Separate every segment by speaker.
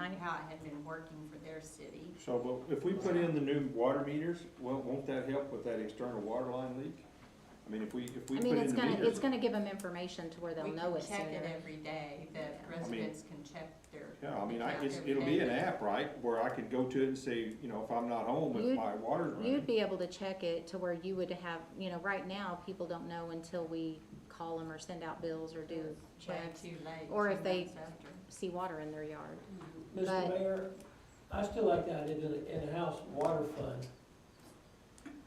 Speaker 1: I ha- had been working for their city.
Speaker 2: So, but if we put in the new water meters, well, won't that help with that external water line leak? I mean, if we, if we
Speaker 3: I
Speaker 2: put
Speaker 3: mean,
Speaker 2: in
Speaker 3: it's
Speaker 2: the
Speaker 3: gonna, it's
Speaker 2: meters.
Speaker 3: gonna give them information to where they'll know
Speaker 1: We
Speaker 3: it
Speaker 1: can check it
Speaker 3: sooner.
Speaker 1: every day, that
Speaker 3: Yeah.
Speaker 1: residents can check their.
Speaker 2: Yeah, I mean, I,
Speaker 1: account
Speaker 2: it's,
Speaker 1: every
Speaker 2: it'll be
Speaker 1: day.
Speaker 2: an app, right, where I can go to it and say, you know, if I'm not home, if
Speaker 3: You'd-
Speaker 2: my water's
Speaker 3: You'd
Speaker 2: running.
Speaker 3: be able to check it to where you would have, you know, right now, people don't know until we call them or send out bills or do
Speaker 1: Way
Speaker 3: checks,
Speaker 1: too late.
Speaker 3: Or if
Speaker 1: two
Speaker 3: they-
Speaker 1: months after.
Speaker 3: see water in their yard.
Speaker 4: Mr.
Speaker 3: But-
Speaker 4: Mayor, I still like the idea of an in-house water fund.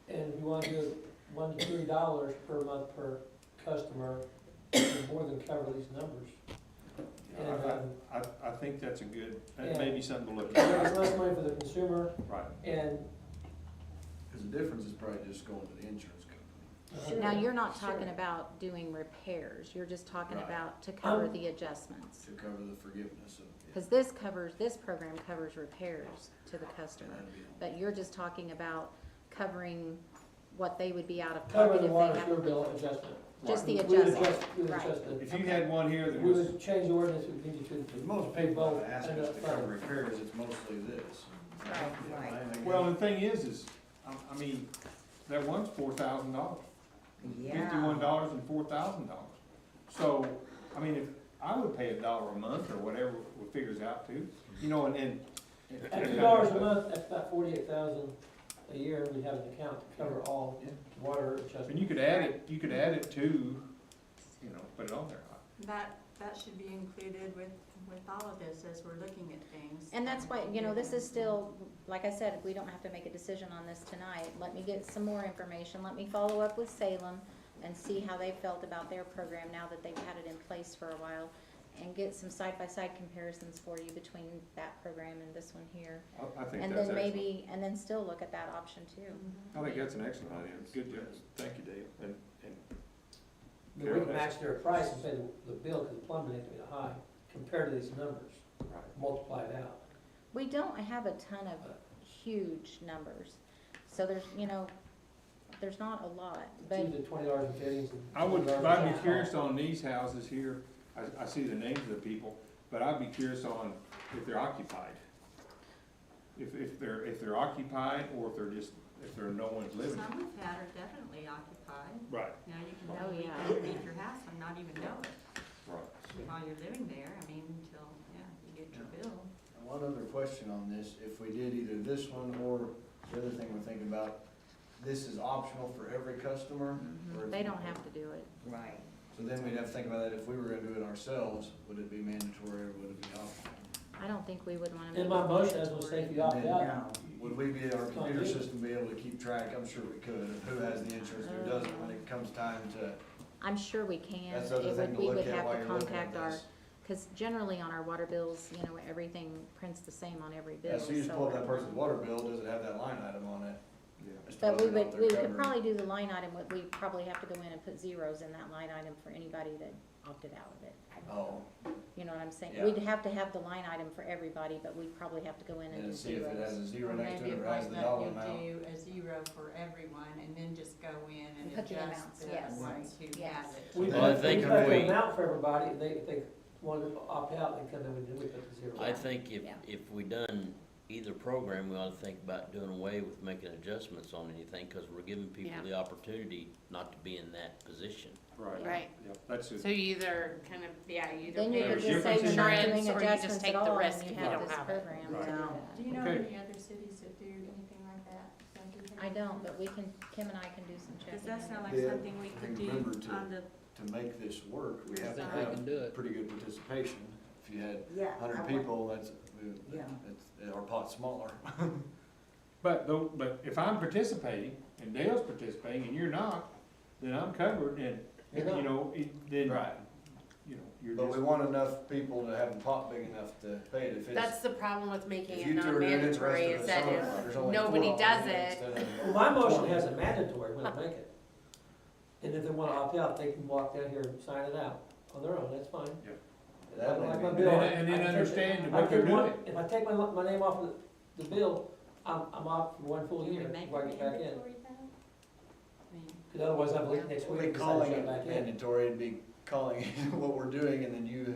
Speaker 4: And if you want to do one to three dollars per month per customer, it'll more than cover these numbers.
Speaker 2: I,
Speaker 4: And, um,
Speaker 2: I, I- I think that's a good, that
Speaker 4: Yeah.
Speaker 2: may be something to look
Speaker 4: there's
Speaker 2: at,
Speaker 4: less money for the consumer
Speaker 2: right?
Speaker 4: and.
Speaker 5: Cause the difference is probably just going to the insurance
Speaker 4: uh,
Speaker 5: company.
Speaker 3: Now, you're not
Speaker 4: Sure.
Speaker 3: talking about doing repairs, you're just talking
Speaker 5: Right.
Speaker 3: about to cover
Speaker 4: Um,
Speaker 3: the adjustments.
Speaker 5: To cover the forgiveness of.
Speaker 3: Cause this covers, this program covers repairs to the customer,
Speaker 5: That'd be on-
Speaker 3: but you're just talking about covering what they would be out of
Speaker 4: Cover
Speaker 3: pocket
Speaker 4: the
Speaker 3: if
Speaker 4: water
Speaker 3: they have.
Speaker 4: sewer bill adjustment.
Speaker 3: Just the
Speaker 4: We would
Speaker 3: adjustment,
Speaker 4: adjust- we would
Speaker 3: right.
Speaker 4: adjust it.
Speaker 2: If you had one here that
Speaker 4: We
Speaker 2: was,
Speaker 4: would change the ordinance, we'd need you
Speaker 5: Cause
Speaker 4: to.
Speaker 5: most
Speaker 4: pay
Speaker 5: people
Speaker 4: both
Speaker 5: that ask
Speaker 4: and
Speaker 5: us to cover
Speaker 4: upfront.
Speaker 5: repairs, it's mostly this.
Speaker 1: Right, right.
Speaker 5: Yeah, I- I-
Speaker 2: well, the thing is, is, I, I mean, that one's four thousand dollars. fifty-one dollars and four thousand dollars. So, I mean, if, I would pay a dollar a month or whatever it figures out to, you know, and, and.
Speaker 4: At two dollars a month, that's about forty-eight thousand a year, we have an account to cover all
Speaker 5: Yeah.
Speaker 4: water adjustments.
Speaker 2: And you could add it, you could add it to, you know, put it on there.
Speaker 1: That, that should be included with, with all of this as we're looking at things.
Speaker 3: And that's why, you know, this is still, like I said, we don't have to make a decision on this tonight. Let me get some more information, let me follow up with Salem and see how they felt about their program now that they've had it in place for a while and get some side-by-side comparisons for you between that program and this one here.
Speaker 2: I, I think
Speaker 3: And
Speaker 2: that's
Speaker 3: then
Speaker 2: excellent.
Speaker 3: maybe, and then still look at that option too.
Speaker 1: Mhm.
Speaker 2: I think that's an excellent idea. Good job. Thank you, Dave. And, and,
Speaker 4: But we can match their price and say the, the bill, because plumbing ain't gonna be high, compared to these numbers, multiply it out.
Speaker 3: We don't have a ton of huge numbers, so there's, you know, there's not a lot,
Speaker 4: It's
Speaker 3: but
Speaker 4: either twenty dollars and fifty cents.
Speaker 2: I would, I'd be
Speaker 3: Yeah.
Speaker 2: curious on these houses here, I, I see the names of the people, but I'd be curious on if they're occupied. If, if they're, if they're occupied, or if they're just, if there are no one's living.
Speaker 1: Some we've had are definitely occupied.
Speaker 2: Right,
Speaker 1: Now you can
Speaker 3: Oh,
Speaker 1: probably
Speaker 3: yeah.
Speaker 1: go leave your house and not even know it
Speaker 2: right.
Speaker 1: while you're living there, I mean, until, yeah, you get your bill.
Speaker 5: And One other question on this, if we did either this one or the other thing we're thinking about, this is optional for every customer? or-
Speaker 3: Mm-hmm. they don't have to do it.
Speaker 1: Right.
Speaker 5: So then we'd have to think about that, if we were gonna do it ourselves, would it be mandatory or would it be optional?
Speaker 3: I don't think we would wanna. make
Speaker 4: In my
Speaker 3: it
Speaker 4: motion, I was gonna
Speaker 3: mandatory.
Speaker 4: say if you opt out,
Speaker 5: Now, Would we be, our computer system be able to keep track, I'm sure we could, of who has the insurance, who doesn't, when it comes time to,
Speaker 3: I'm sure we can.
Speaker 5: that's the other
Speaker 3: It
Speaker 5: thing
Speaker 3: would,
Speaker 5: to
Speaker 3: we
Speaker 5: look
Speaker 3: would
Speaker 5: at
Speaker 3: have
Speaker 5: while
Speaker 3: to
Speaker 5: you're looking at
Speaker 3: contact our,
Speaker 5: this.
Speaker 3: cause generally on our water bills, you know, everything prints the same on every bill,
Speaker 5: Yeah, so you just pull up that
Speaker 3: so.
Speaker 5: person's water bill, does it have that line item on it?
Speaker 2: Yeah.
Speaker 5: as to
Speaker 3: But we
Speaker 5: whether or not
Speaker 3: would, we
Speaker 5: they're
Speaker 3: could
Speaker 5: covered?
Speaker 3: probably do the line item, but we probably have to go in and put zeros in that line item for anybody that opted out of it.
Speaker 5: Oh,
Speaker 3: You know what I'm saying?
Speaker 5: Yeah.
Speaker 3: We'd have to have the line item for everybody, but we'd probably have to go in and do
Speaker 5: and see if it has
Speaker 1: Or
Speaker 3: zeros.
Speaker 5: a zero next to
Speaker 1: maybe
Speaker 5: it
Speaker 1: it
Speaker 5: or has
Speaker 1: might
Speaker 5: the
Speaker 1: let
Speaker 5: dollar
Speaker 1: you
Speaker 5: amount.
Speaker 1: do a zero for everyone and then just go in
Speaker 3: And
Speaker 1: and
Speaker 3: put the
Speaker 1: adjust
Speaker 3: amounts,
Speaker 1: the
Speaker 3: yes.
Speaker 1: ones who have
Speaker 3: Yes.
Speaker 1: it.
Speaker 4: we
Speaker 6: And
Speaker 4: put,
Speaker 6: I
Speaker 4: we put
Speaker 6: think if
Speaker 4: an
Speaker 6: we-
Speaker 4: amount for everybody, if they, if they wanted to opt out, they come in, we do, we put the zero.
Speaker 6: I think if,
Speaker 3: Yeah.
Speaker 6: if we done either program, we ought to think about doing away with making adjustments on anything, cause we're giving people
Speaker 7: Yeah.
Speaker 6: the opportunity not to be in that position.
Speaker 2: Right.
Speaker 7: Right,
Speaker 2: Yeah, that's it.
Speaker 7: so you either kind of, yeah, you either
Speaker 3: Then you
Speaker 7: pay
Speaker 3: could
Speaker 2: There's
Speaker 3: just say you're not doing
Speaker 7: insurance, or you just
Speaker 3: adjustments at
Speaker 7: take the
Speaker 3: all
Speaker 7: risk
Speaker 3: and
Speaker 7: if
Speaker 3: you
Speaker 7: you
Speaker 3: have
Speaker 7: don't
Speaker 3: this
Speaker 7: have it.
Speaker 3: program
Speaker 2: Right.
Speaker 3: to do that.
Speaker 1: Do you know
Speaker 2: Okay.
Speaker 1: any other cities that do anything like that? Don't you think-
Speaker 3: I don't, but we can, Kim and I can do some checking.
Speaker 1: Does that sound like
Speaker 5: Yeah.
Speaker 1: something we
Speaker 5: I
Speaker 1: could
Speaker 5: think
Speaker 1: do
Speaker 5: remember to-
Speaker 1: on the,
Speaker 5: To make this work, we have to
Speaker 1: Sorry.
Speaker 5: have
Speaker 6: do it.
Speaker 5: pretty good participation. If you had
Speaker 8: Yeah. I
Speaker 5: hundred
Speaker 8: want-
Speaker 5: people, that's, we-
Speaker 8: Yeah.
Speaker 5: it's, our pot's smaller.
Speaker 2: But though, but if I'm participating and Dale's participating and you're not, then I'm covered and, you
Speaker 4: You're not.
Speaker 2: know, it, then, you know, you're
Speaker 5: But we
Speaker 2: just.
Speaker 5: want enough people to have the pot big enough to pay it if
Speaker 7: That's
Speaker 5: it's.
Speaker 7: the problem with making
Speaker 5: if
Speaker 7: it
Speaker 5: you two are
Speaker 7: non-mandatory,
Speaker 5: interested in
Speaker 7: is that
Speaker 5: some,
Speaker 7: if
Speaker 5: there's only
Speaker 7: nobody
Speaker 5: four of
Speaker 7: does
Speaker 5: them
Speaker 7: it,
Speaker 5: instead
Speaker 4: Well,
Speaker 5: of
Speaker 4: my motion
Speaker 5: 20.
Speaker 4: has a mandatory, when I make it. And if they wanna opt out, they can walk down here and sign it out on their own, that's fine.
Speaker 5: That
Speaker 4: I
Speaker 5: may
Speaker 4: have my
Speaker 5: be good.
Speaker 2: And
Speaker 4: bill.
Speaker 2: then- and then understand
Speaker 4: I
Speaker 2: what they're
Speaker 4: take
Speaker 2: doing.
Speaker 4: one, if I take my, li- my name off of the, the bill, I'm, I'm out for one full
Speaker 1: Can we
Speaker 4: year
Speaker 1: make
Speaker 4: before I
Speaker 1: it
Speaker 4: get back in.
Speaker 1: I mean,
Speaker 4: Cause otherwise I'm late next
Speaker 5: We'll
Speaker 4: week. and
Speaker 5: be
Speaker 4: decide to
Speaker 5: calling
Speaker 4: shut
Speaker 5: it
Speaker 4: back in.
Speaker 5: mandatory, it'd be calling what we're doing, and then you,